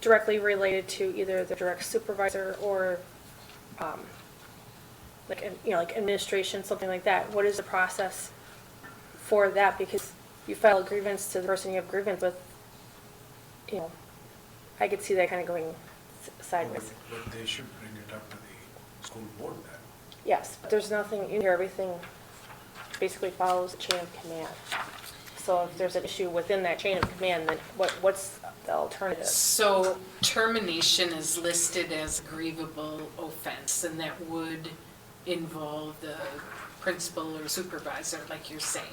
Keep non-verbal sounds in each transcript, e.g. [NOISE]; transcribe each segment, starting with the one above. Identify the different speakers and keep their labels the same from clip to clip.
Speaker 1: directly related to either the direct supervisor or, um, like, you know, like administration, something like that, what is the process for that? Because you file a grievance to the person you have grievance with, you know, I could see that kind of going s- sideways.
Speaker 2: But they should bring it up to the school board then.
Speaker 1: Yes, but there's nothing in here, everything basically follows the chain of command. So if there's an issue within that chain of command, then what, what's the alternative?
Speaker 3: So termination is listed as a grievable offense, and that would involve the principal or supervisor, like you're saying.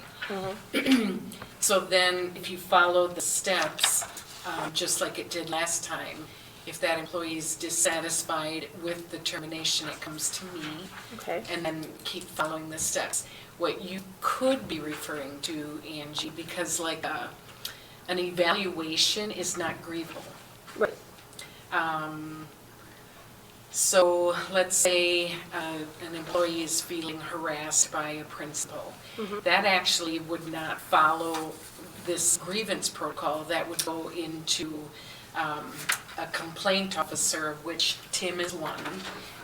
Speaker 3: So then, if you follow the steps, um, just like it did last time, if that employee is dissatisfied with the termination, it comes to me
Speaker 1: Okay,
Speaker 3: and then keep following the steps. What you could be referring to, Angie, because like a, an evaluation is not grievable.
Speaker 1: right,
Speaker 3: So let's say uh, an employee is feeling harassed by a principal. That actually would not follow this grievance protocol. That would go into um, a complaint officer, of which Tim is one,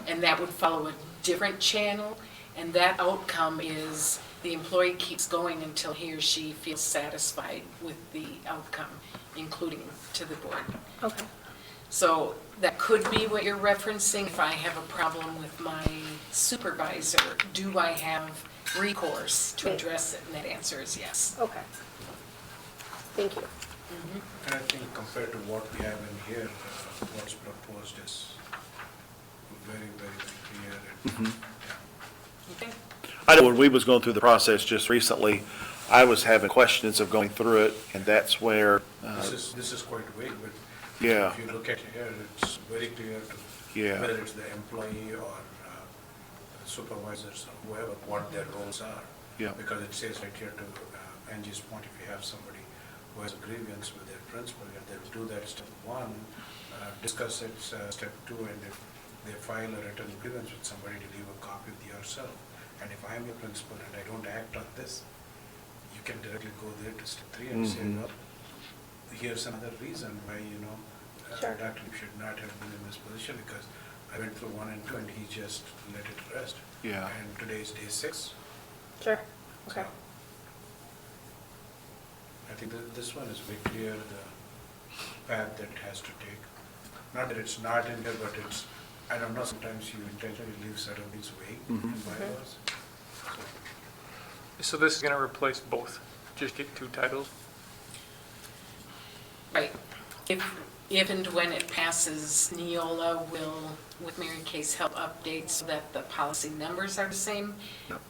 Speaker 3: and that would follow a different channel. And that outcome is the employee keeps going until he or she feels satisfied with the outcome, including to the board.
Speaker 1: okay.
Speaker 3: So that could be what you're referencing. If I have a problem with my supervisor, do I have recourse to address it? And that answer is yes.
Speaker 1: Okay. Thank you.
Speaker 2: And I think compared to what we have in here, uh, what's proposed is very, very clear and,
Speaker 3: Okay.
Speaker 4: I know when we was going through the process just recently, I was having questions of going through it, and that's where,
Speaker 2: yeah.
Speaker 4: uh,
Speaker 2: This is, this is quite vague, but
Speaker 4: Yeah.
Speaker 2: if you look at here, it's very clear to
Speaker 4: Yeah.
Speaker 2: whether it's the employee or uh, supervisors or whoever, what their roles are.
Speaker 4: Yeah.
Speaker 2: Because it says right here to uh, Angie's point, if you have somebody who has a grievance with their principal, yeah, they'll do that step one, uh, discuss it, uh, step two, and if they file a written grievance with somebody, to leave a copy with yourself. And if I'm your principal and I don't act on this, you can directly go there to step three and say,
Speaker 4: Mhm.
Speaker 2: well, here's another reason why, you know, uh,
Speaker 1: Sure.
Speaker 2: Dr. Lee should not have been in this position because I went through one and two and he just let it rest.
Speaker 4: Yeah.
Speaker 2: And today is day six.
Speaker 1: Sure, okay.
Speaker 2: so I think that this one is very clear, the path that it has to take. Not that it's not in there, but it's, I don't know, sometimes you intentionally leave certain things vague in
Speaker 4: Mhm.
Speaker 1: Mm-hmm.
Speaker 2: bylaws.
Speaker 5: So this is going to replace both, just get two titles?
Speaker 3: Right. If, if and when it passes, Neola will, with Mary Kay's help, update so that the policy numbers are the same,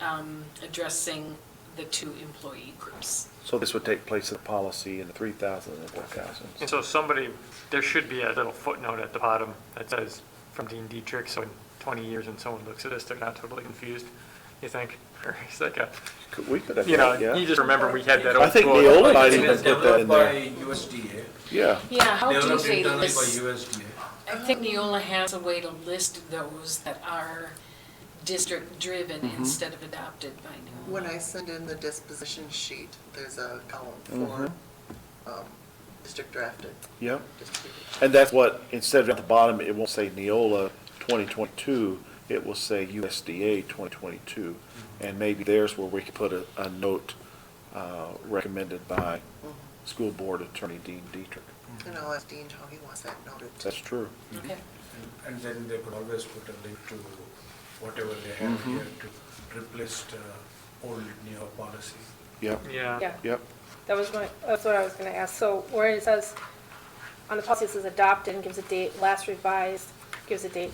Speaker 3: um, addressing the two employee groups.
Speaker 4: so this would take place in the policy in the 3,000 and the 4,000.
Speaker 5: And so somebody, there should be a little footnote at the bottom that says, from Dean Dietrich, so in 20 years when someone looks at this, they're not totally confused, you think? [LAUGHS] Or it's like a,
Speaker 4: Could- We could have,
Speaker 5: you know,
Speaker 4: that,
Speaker 5: you
Speaker 4: yeah.
Speaker 5: just remember we had that old.
Speaker 4: I think
Speaker 5: quote.
Speaker 4: Neola might
Speaker 2: It
Speaker 4: even
Speaker 2: is
Speaker 4: put that in
Speaker 2: developed by
Speaker 4: there.
Speaker 2: USDA,
Speaker 4: Yeah,
Speaker 3: Yeah, how do
Speaker 2: developed
Speaker 3: they
Speaker 2: internally by
Speaker 3: list?
Speaker 2: USDA.
Speaker 3: I think Neola has a way to list those that are district-driven instead of adopted by Neola.
Speaker 6: When I send in the disposition sheet, there's a column for
Speaker 4: Mm-hmm.
Speaker 6: um, district drafted,
Speaker 4: yeah.
Speaker 6: distributed.
Speaker 4: And that's what, instead of at the bottom, it won't say Neola 2022, it will say USDA 2022. And maybe there's where we could put a, a note uh, recommended by School Board Attorney Dean Dietrich.
Speaker 6: And I'll ask Dean how he wants that noted.
Speaker 4: That's true.
Speaker 3: Okay.
Speaker 2: And then they could always put a link to whatever they have
Speaker 4: Mm-hmm.
Speaker 2: here to replace the old new policy.
Speaker 4: Yep,
Speaker 5: Yeah.
Speaker 1: Yeah,
Speaker 4: yep.
Speaker 1: that was my, that's what I was gonna ask. So where it says, on the policy it says adopted and gives a date, last revised, gives a date.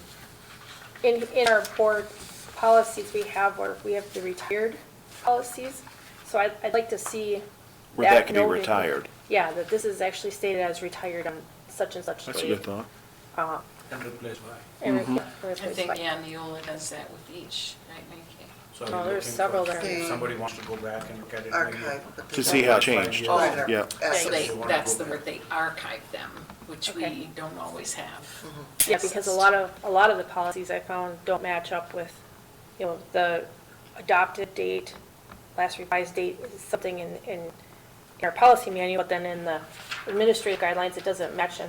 Speaker 1: In, in our board policies, we have where we have the retired policies. So I'd, I'd like to see.
Speaker 4: Where that can be
Speaker 1: noted.
Speaker 4: retired.
Speaker 1: Yeah, that this is actually stated as retired on such and such date.
Speaker 4: That's a good thought. Mm-hmm.
Speaker 2: And replace why?
Speaker 1: And we can
Speaker 3: I
Speaker 1: replace
Speaker 3: think,
Speaker 1: by-
Speaker 3: yeah, Neola does that with each, right, Mary Kay?
Speaker 2: So are
Speaker 1: Oh,
Speaker 2: you
Speaker 1: there's
Speaker 2: looking
Speaker 1: several
Speaker 2: for-
Speaker 1: there.
Speaker 2: if Somebody wants to go back and look at it. maybe-
Speaker 6: Archive. but
Speaker 4: To
Speaker 6: there's
Speaker 4: see
Speaker 6: no-
Speaker 4: how it changed.
Speaker 2: Oh.
Speaker 6: Right,
Speaker 4: Yeah.
Speaker 3: So they,
Speaker 6: assets.
Speaker 3: that's the word, they archive them, which we
Speaker 1: Okay.
Speaker 3: don't always have.
Speaker 6: Mm-hmm.
Speaker 1: Yeah, because a lot of, a lot of the policies I found don't match up with, you know, the adopted date, last revised date, is something in, in in our policy manual, but then in the administrative guidelines, it doesn't match, and